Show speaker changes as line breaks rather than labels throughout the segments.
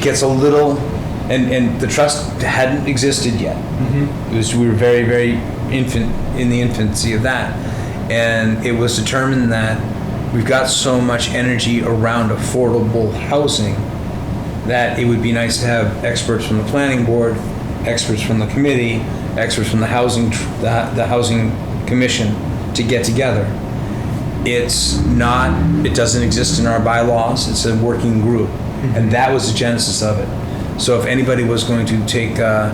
gets a little, and, and the trust hadn't existed yet. It was, we were very, very infant, in the infancy of that. And it was determined that we've got so much energy around affordable housing that it would be nice to have experts from the planning board, experts from the committee, experts from the housing, tr- the, the housing commission to get together it's not it doesn't exist in our bylaws it's a working group and that was the genesis of it so if anybody was going to take uh,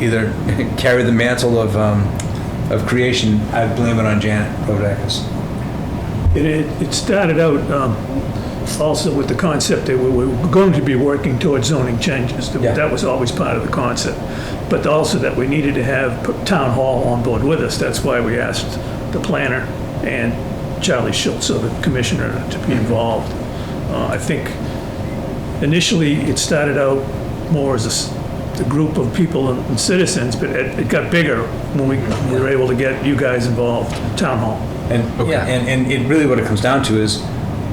either carry the mantle of um, of creation i blame it on janet Prodakis.
It- It, it started out um, also with the concept that we were going to be working towards zoning changes. That-
Yeah.
That was always part of the concept. But also that we needed to have p- town hall on board with us. That's why we asked the planner and Charlie Schultz, so the commissioner, to be involved. Uh, I think initially, it started out more as a s- a group of people and and citizens, but it it got bigger when we we were able to get you guys involved, town hall.
and yeah and, and it really what it comes down to is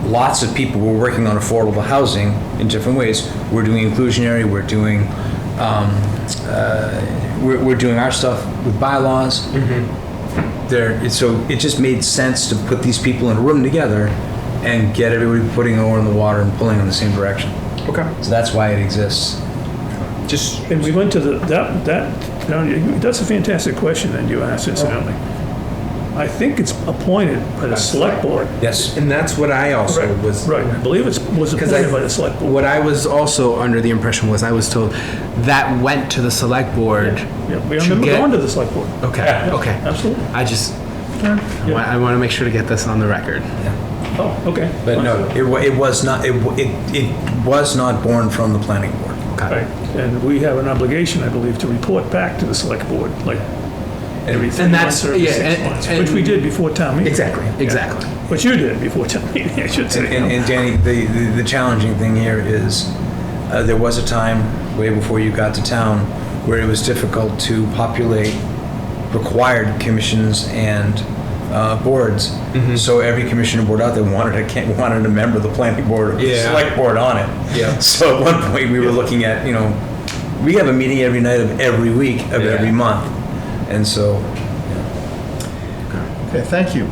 lots of people were working on affordable housing in different ways we're doing inclusionary we're doing um, uh, we're, we're doing our stuff with bylaws there it- so it just made sense to put these people in a room together and get everybody putting an oar in the water and pulling in the same direction
Okay.
so that's why it exists
Just
And we went to the, that, that, no, you- that's a fantastic question that you asked incidentally. I think it's appointed by the select board.
yes
and that's what I also was
Right, I believe it's, was
because I
appointed by the select board.
what I was also under the impression was I was told that went to the select board.
Yeah, we
to
remember
get-
going to the select board.
Okay.
Yeah,
Okay.
Absolutely.
I just I, want,
Yeah.
I want to make sure to get this on the record.
Oh, okay.
but no it, wa- it was not it, wa- it, it was not born from the planning board
Okay.
Right, and we have an obligation, I believe, to report back to the select board, like every three
And
months
that's-
or every
yeah,
six
and-
months, which
and-
we did before town meeting.
Exactly. Exactly.
Which you did before town meeting, I should say.
And, and Danny, the, the, the challenging thing here is uh, there was a time way before you got to town where it was difficult to populate required commissions and uh, boards.
Mm-hmm.
So every commissioner board out there wanted a can- wanted a member of the planning board or the
Yeah.
select board on it.
Yeah.
So at one point we were looking at you know we have a meeting every night of every week of
Yeah.
every month, and so
Okay, thank you.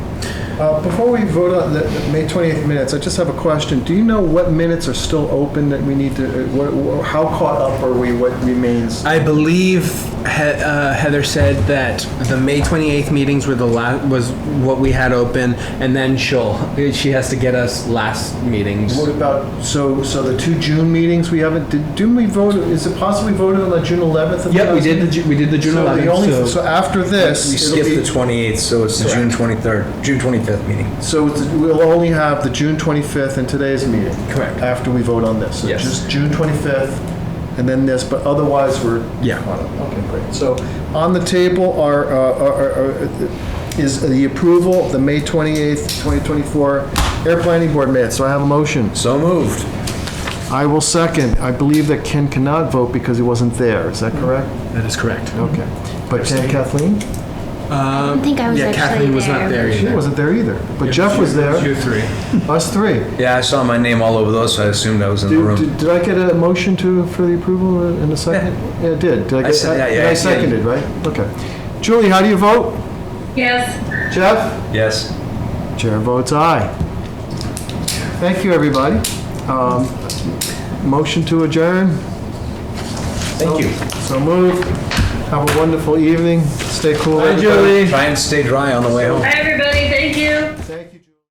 Uh, Before we vote on the the May 28th minutes, I just have a question. Do you know what minutes are still open that we need to, uh, what- wha- how caught up are we, what remains?
I believe he- uh, Heather said that the May 28th meetings were the last was what we had open, and then she'll she has to get us last meetings.
What about, so, so the two June meetings we haven't, did- didn't we vote, is it possible we voted on the June 11th? of
Yep, we
those?
did the Ju- we did the June
So the
11th.
only-
so-
So after
we
this, it'll
skipped the
be,
28th, so it's the June 23rd, June 25th meeting.
so it's- we'll only have the June 25th and today's meeting?
Correct.
After we vote on this? So
Yes.
Just June 25th and then this, but otherwise we're
yeah.
Okay, great. So on the table are, uh, are- are- is the approval of the May 28th, 2024 Air Planning Board minutes. So I have a motion.
So moved.
I will second. I believe that Ken cannot vote because he wasn't there. Is that correct?
That is correct.
Okay. But Ken Kathleen?
I don't think I was
yeah,
actually
Kathleen was not there
She
either.
wasn't there either. But Jeff was there.
You three.
Us three.
Yeah, I saw my name all over those, so I assumed I was in the
Do-
room.
do- Did I get a motion to, for the approval in a second? Yeah, I did. Did I
I
get,
said- yeah, yeah,
and
yeah.
I seconded, right? Okay. Julie, how do you vote?
Yes,
Jeff?
Yes.
Chair votes aye. Thank you, everybody. Um, Motion to adjourn,
Thank you.
so moved. Have a wonderful evening. Stay cool. everybody.
Try and stay dry on the way home.
bye everybody.